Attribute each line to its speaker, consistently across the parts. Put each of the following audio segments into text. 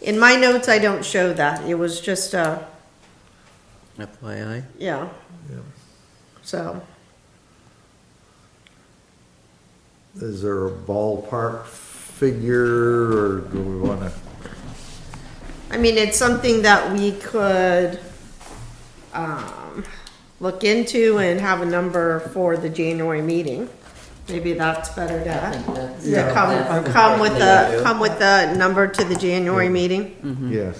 Speaker 1: In my notes, I don't show that. It was just, uh,
Speaker 2: FYI.
Speaker 1: yeah,
Speaker 3: Yeah.
Speaker 1: so.
Speaker 3: Is there a ballpark figure or do we wanna,
Speaker 1: I mean, it's something that we could, um, look into and have a number for the January meeting. Maybe that's better to, to
Speaker 3: Yeah.
Speaker 1: come, come with the, come with the number to the January
Speaker 4: Mm.
Speaker 1: meeting.
Speaker 3: yes.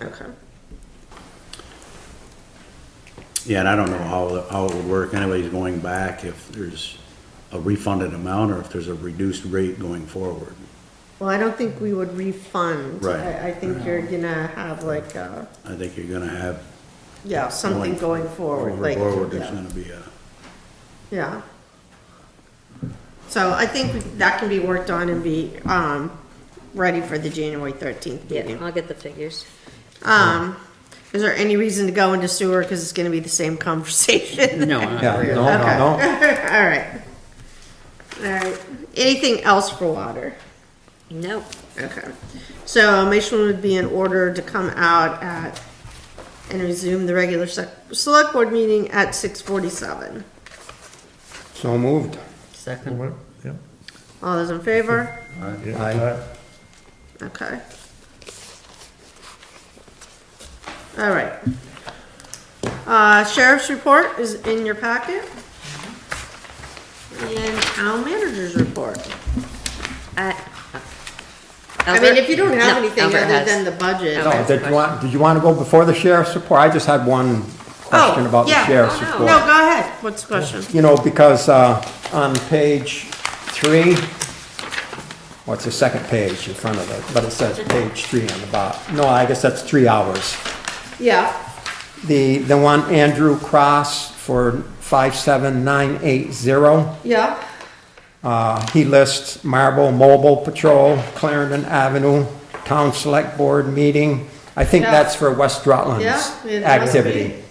Speaker 1: Okay.
Speaker 4: Yeah, and I don't know how, the- how it would work anyways going back, if there's a refunded amount or if there's a reduced rate going forward.
Speaker 1: Well, I don't think we would refund.
Speaker 4: Right.
Speaker 1: I, I think you're gonna have like, uh,
Speaker 4: I think you're gonna have,
Speaker 1: yeah, something
Speaker 4: Going
Speaker 1: going forward,
Speaker 4: over
Speaker 1: like.
Speaker 4: forward, there's
Speaker 1: yeah.
Speaker 4: gonna be a,
Speaker 1: Yeah. So I think that can be worked on and be, um, ready for the January thirteenth
Speaker 5: Yeah,
Speaker 1: meeting.
Speaker 5: I'll get the figures.
Speaker 1: Um, is there any reason to go into sewer, cause it's gonna be the same conversation?
Speaker 2: No, uh,
Speaker 3: Yeah,
Speaker 2: I-
Speaker 3: no, no, no.
Speaker 1: Alright. Alright, anything else for water?
Speaker 5: Nope.
Speaker 1: Okay, so a motion would be in order to come out at, and resume the regular sec- select board meeting at six forty-seven.
Speaker 6: So moved.
Speaker 2: second.
Speaker 3: What? Yeah.
Speaker 1: All those in favor?
Speaker 3: Yeah.
Speaker 6: Aye.
Speaker 1: Okay. All right. Uh, sheriff's report is in your packet.
Speaker 5: Mm-hmm.
Speaker 1: And town manager's report.
Speaker 5: I uh,
Speaker 1: I mean, if you don't have
Speaker 5: No,
Speaker 1: anything
Speaker 5: Albert
Speaker 1: other
Speaker 5: has.
Speaker 1: than the budget.
Speaker 5: Albert.
Speaker 6: No, did you want, did you want to go before the sheriff's report? I just had one question about the
Speaker 1: yeah.
Speaker 6: sheriff's
Speaker 5: Oh, no.
Speaker 1: No,
Speaker 6: report.
Speaker 1: go ahead. What's the question?
Speaker 6: You know, because, uh, on page three, well, it's the second page in front of it, but it says page three on the bottom. No, I guess that's three hours.
Speaker 1: Yeah,
Speaker 6: The, the one Andrew Cross for five seven nine eight zero.
Speaker 1: yeah,
Speaker 6: Uh, He lists Marble Mobile Patrol, Clarendon Avenue, Town Select Board Meeting. I think
Speaker 1: Yeah.
Speaker 6: that's for West Rutland's
Speaker 1: Yeah, it must
Speaker 6: activity.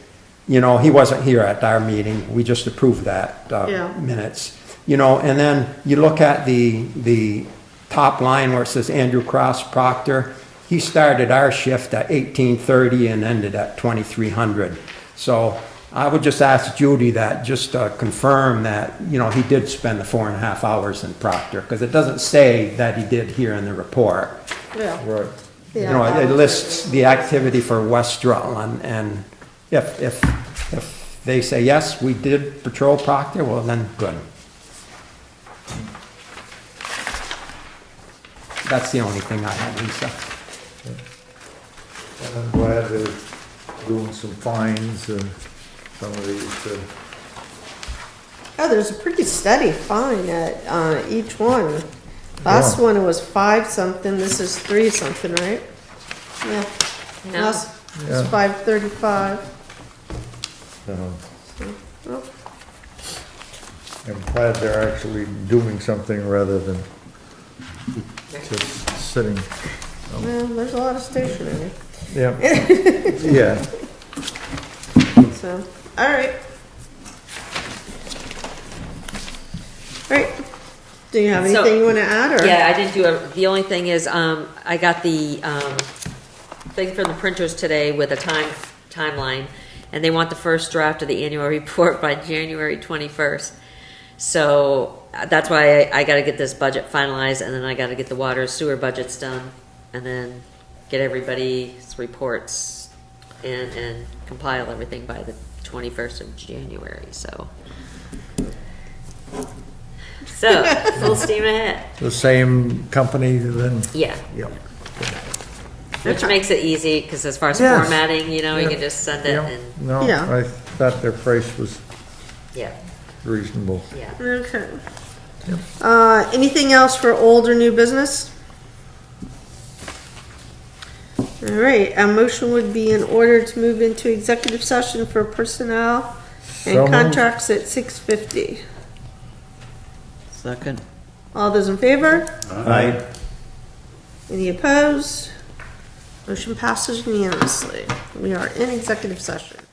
Speaker 6: You know, he wasn't here at our meeting, we just approved that uh,
Speaker 1: Yeah.
Speaker 6: minutes. You know, and then you look at the, the top line where it says Andrew Cross Proctor. He started our shift at 18:30 and ended at 2300. So I would just ask Judy that, just to confirm that, you know, he did spend the four and a half hours in Proctor, because it doesn't say that he did here in the report.
Speaker 1: yeah.
Speaker 3: Right.
Speaker 6: You
Speaker 1: Yeah,
Speaker 6: know,
Speaker 1: that
Speaker 6: it
Speaker 1: was-
Speaker 6: lists the activity for West Rutland, and if, if, if they say, yes, we did patrol Proctor, well, then, good. That's the only thing I have, Lisa.
Speaker 3: And I'm glad they're doing some fines and some of these, uh,
Speaker 1: Oh, there's a pretty steady fine at, uh, each one. Last
Speaker 3: Yeah.
Speaker 1: one it was five something, this is three something, right? Yeah.
Speaker 5: No.
Speaker 1: Last,
Speaker 3: Yeah.
Speaker 1: it's five thirty-five.
Speaker 3: so
Speaker 1: Oh,
Speaker 3: I'm glad they're actually doing something rather than just sitting.
Speaker 1: Well, there's a lot of stationery,
Speaker 3: Yeah. Yeah.
Speaker 1: so, all right. All right, do you have
Speaker 5: So-
Speaker 1: anything you wanna add, or?
Speaker 5: Yeah, I didn't do, a- the only thing is, um, I got the, um, thing from the printers today with a time, timeline, and they want the first draft of the annual report by January twenty-first. So, uh, that's why I, I gotta get this budget finalized, and then I gotta get the water sewer budgets done, and then get everybody's reports and, and compile everything by the twenty-first of January, so. So, full steam ahead.
Speaker 3: The same company then?
Speaker 5: Yeah,
Speaker 3: Yep.
Speaker 5: which makes it easy, because as far as
Speaker 3: Yes.
Speaker 5: formatting, you know, you
Speaker 3: Yeah.
Speaker 5: can just send it
Speaker 3: Yeah.
Speaker 5: and,
Speaker 3: No,
Speaker 1: Yeah.
Speaker 3: I thought their price was
Speaker 5: yeah,
Speaker 3: reasonable.
Speaker 5: yeah.
Speaker 1: Okay. Uh, anything else for old or new business? All right, a motion would be in order to move into executive session for personnel
Speaker 3: So
Speaker 1: and
Speaker 3: moved.
Speaker 1: contracts at six fifty.
Speaker 2: Second.
Speaker 1: All those in favor?
Speaker 3: Aye.
Speaker 1: Any opposed? Motion passes unanimously. We are in executive session.